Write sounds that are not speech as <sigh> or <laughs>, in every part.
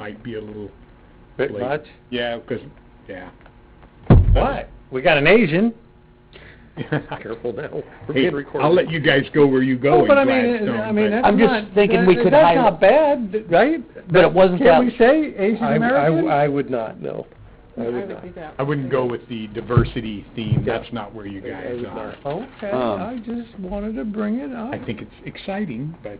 might be a little, Bit Late. much? yeah, 'cause, yeah. What? <laughs> We got an Asian. Careful now. We're Hey, being recorded. I'll let you guys go where you go Oh, in but I mean, Gladstone, I mean, but- that's I'm just not- thinking we that- could That's hide- not bad, right? But it wasn't Can we that- say Asian I- I w- American? I would not, no. I would not. I wouldn't go with the diversity theme, Yeah. that's not where you I- I guys would are. not. Okay, Um, I just wanted to bring it up. I think it's exciting, but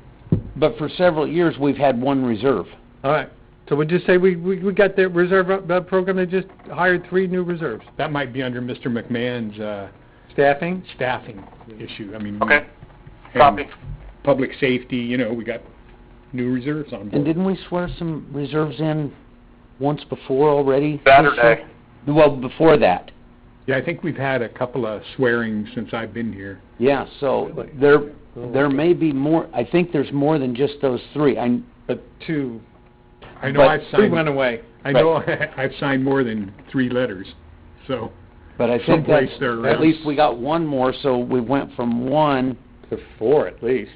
But for several years, we've had one reserve. All right, so we just say we, we, we got the reserve, uh, uh, program, they just hired three new reserves. that might be under Mr. McMahon's, uh, Staffing? staffing issue, I mean. we- Okay. and Copy. Public safety, you know, we got new reserves on And board. didn't we swear some reserves in once before already? Saturday. Well, before that, Yeah, I think we've had a couple of swearings since I've been here. yeah, so Really? there, Oh, there may be more, I think there's more than just those three. I, But two, I know But I've two went signed, away. I know <laughs> I've signed more than three letters, so, but I think Someplace that's, there at around. least we got one more, so we went from one They're four at least.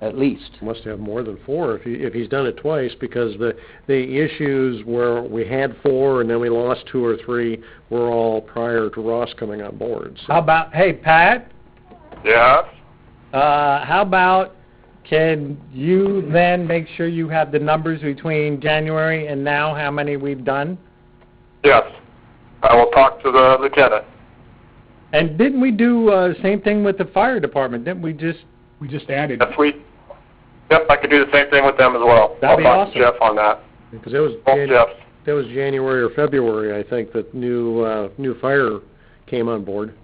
at least. Must have more than four if he, if he's done it twice, because the, the issues where we had four and then we lost two or three were all prior to Ross coming on board, so. How about, hey, Pat, Yeah? uh, how about, can you then make sure you have the numbers between January and now, how many we've done? Yes. I will talk to the lieutenant. And didn't we do, uh, same thing with the fire department, didn't we just, we just added, If we, yep, I could do the same thing with them as well. That'd be I'll talk awesome. to Jeff on that. Because that was, Both Jan- Jeffs. that was January or February, I think, that new, uh, new fire came on board.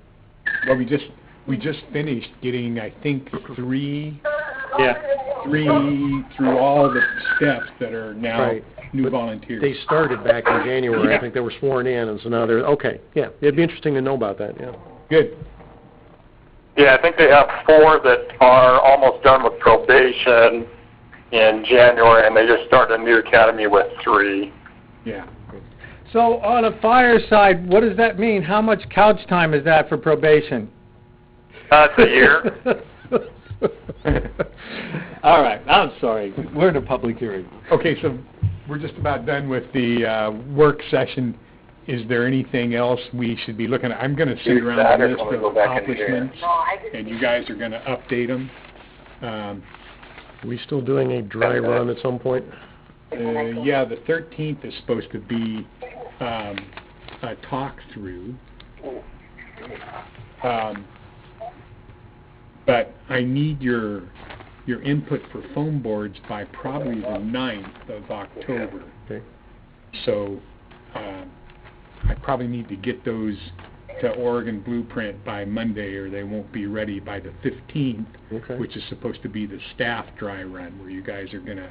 well, we just, we just finished getting, I think, three yeah, three through all the steps that are now Right. new But volunteers. They started back in January, Yeah. I think they were sworn in, and so now they're, okay, yeah, it'd be interesting to know about that, yeah. Good. Yeah, I think they have four that are almost done with probation in January, and they just started a new academy with <laughs> three. Yeah. So on a fire side, what does that mean? How much couch time is that for probation? That's a <laughs> year. <laughs> All right, I'm sorry, we're in a public hearing. Okay, so we're just about done with the uh, work session. Is there anything else we should be looking at? I'm going to send Here's around that, a or list can we of go back in here? accomplishments, and you guys are going to update them. Um, We still doing a dry run at some point? uh, yeah, the 13th is supposed to be um, a talk-through. Um, but I need your, your input for foam boards by probably the ninth of October. Okay. So, um, I probably need to get those to Oregon Blueprint by Monday, or they won't be ready by the fifteenth, Okay. which is supposed to be the staff dry run, where you guys are gonna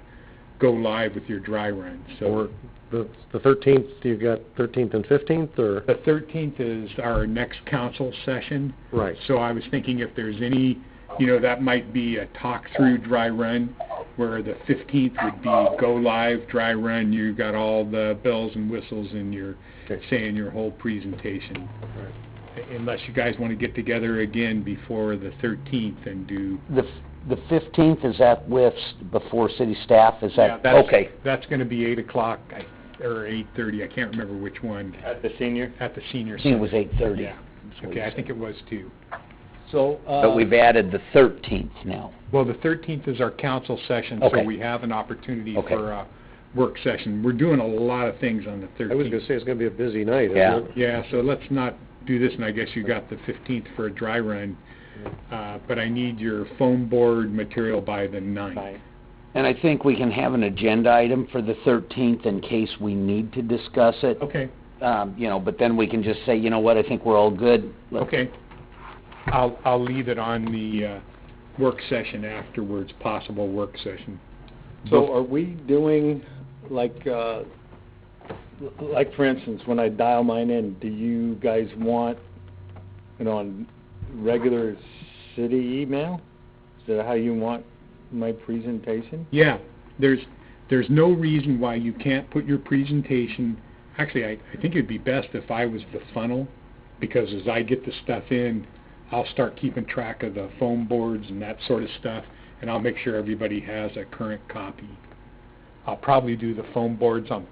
go live with your dry run, so. Or the the 13th, you've got 13th and 15th, or? The thirteenth is our next council session, Right. so I was thinking if there's any, you know, that might be a talk-through dry run, where the fifteenth would be go live, dry run, you got all the bells and whistles and your, Okay. saying your whole presentation. Unless you guys want to get together again before the thirteenth and do. The, f- the fifteenth, is that with, s- before city staff, is Yeah, that, that's- okay? That's going to be eight o'clock, I- or eight-thirty, I can't remember which one, At the senior. at the senior I think it was center. eight thirty. Yeah, okay, I think it was too. So, uh. But we've added the thirteenth now. Well, the thirteenth is our council session, so Okay. we have an opportunity Okay. for a work session. We're doing a lot of things on the I was gonna thirteenth. say, it's gonna be a busy night, isn't Yeah. it? Yeah, so let's not do this, and I guess you got the fifteenth for a dry run, uh, but I need your foam board material by the ninth. And I think we can have an agenda item for the thirteenth in case we need to discuss it. Okay. Um, you know, but then we can just say, you know what, I think we're all good. Let- Okay. I'll, I'll leave it on the, uh, work session afterwards, possible work session. So are we doing, like, uh, l- like for instance, when I dial mine in, do you guys want it on regular city email? Is that how you want my presentation? Yeah, there's, there's no reason why you can't put your presentation, actually, I, I think it'd be best if I was the funnel, because as I get the stuff in, I'll start keeping track of the foam boards and that sort of stuff, and I'll make sure everybody has a current copy. I'll probably do the foam boards on